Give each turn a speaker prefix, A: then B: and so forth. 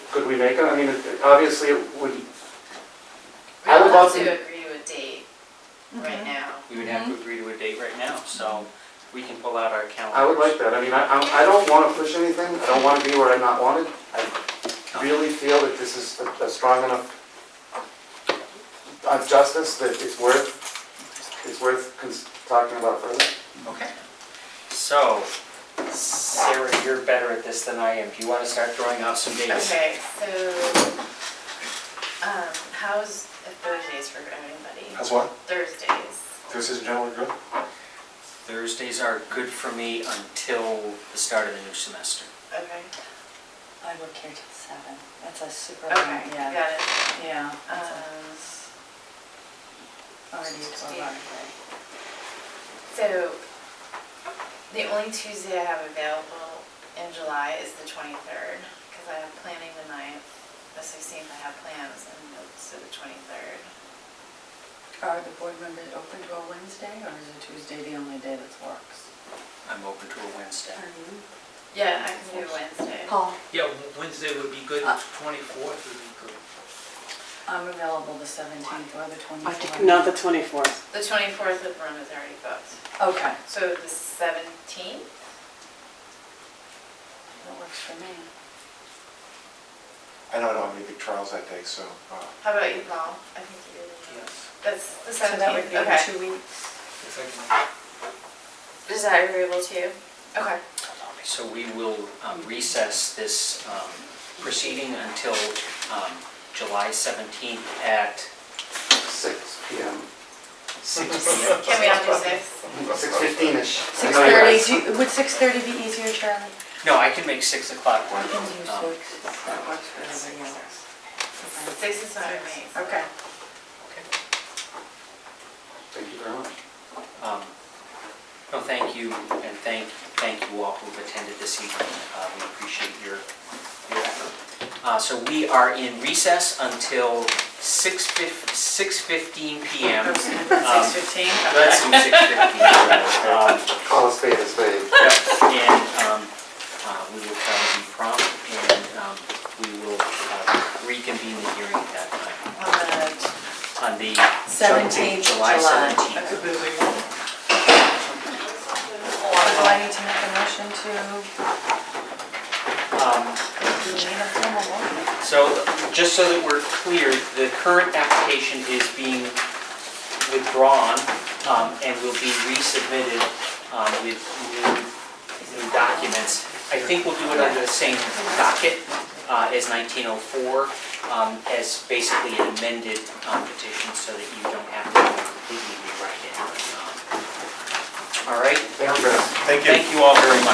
A: Could we make it? I mean, it- obviously, it would,
B: We
A: I would
B: don't have
A: love
B: to
A: to-
B: agree to a date
C: Mm-hmm.
B: right now.
D: We would have to agree to a date right now, so we can pull out our calendars.
A: I would like that. I mean, I, I'm- I don't want to push anything. I don't want to be where I'm not wanted. I really feel that this is a- a strong enough uh, justice that it's worth, it's worth cons- talking about further.
D: Okay.
E: So, Sarah, you're better at this than I am. Do you want to start throwing out some dates?
B: Okay, so, um, how's Thursdays for anybody?
F: That's what?
B: Thursdays,
F: This is generally good?
E: Thursdays are good for me until the start of the new semester.
B: okay,
C: Um, I work here till seven. That's a super,
B: okay,
C: yeah,
B: got it.
C: yeah. that's a-
B: Um,
C: Already a twelve hour day.
B: So, the only Tuesday I have available in July is the 23rd, because I have planning the 9th, the 16th I have plans, and the- so the 23rd.
C: Are the board members open to a Wednesday or is a Tuesday the only day that works?
E: I'm open to a Wednesday.
B: Yeah, I can do Wednesday.
C: Paul?
G: Yeah, Wednesday would be good,
C: Uh,
G: 24th would be good.
C: I'm available the seventeenth or the
H: I think-
C: twenty-fourth.
H: Not the 24th.
B: The 24th of run is already booked,
C: Okay,
B: so the 17th?
C: that works for me.
F: I know I don't have any big trials that day, so, uh,
B: How about you, Paul? I think you did.
G: Yes.
B: That's the
C: So that would
B: 17th,
C: be in
B: okay.
C: two weeks.
G: If I
B: Is that agreeable to you? Okay.
E: So we will um, recess this um, proceeding until um, July 17th at
A: Six P M,
E: six PM.
B: Can we all do six?
A: six fifteen-ish.
C: Six thirty, would six thirty be easier, Charlie?
E: No, I can make 6 o'clock
C: I can
E: work.
C: do
E: Um,
C: six, if that works for everybody else. Okay.
B: Six is fine with me.
C: Okay.
A: Thank you very much.
E: um, No, thank you, and thank, thank you all who've attended this evening. Uh, We appreciate your, your effort. Uh, So we are in recess until 6:15 PM. Um,
C: Six fifteen?
E: Let's do 6:15. Um,
A: Call a spade a spade.
E: Yep, and um, uh, we will try to be prompt, and um, we will uh, reconvene the hearing at that time
B: On the
E: on the...
C: 17th
E: July
C: July.
E: 17th.
C: So I need to make a motion to,
E: Um,
C: do we need a formal motion?
E: So, just so that we're clear, the current application is being withdrawn um, and will be resubmitted um, with new- new documents. I think we'll do it under the same docket uh, as 1904, um, as basically an amended um, petition so that you don't have to completely rewrite it. Um, All right?
A: Thank you, Chris.
F: thank you.
E: Thank you all very much.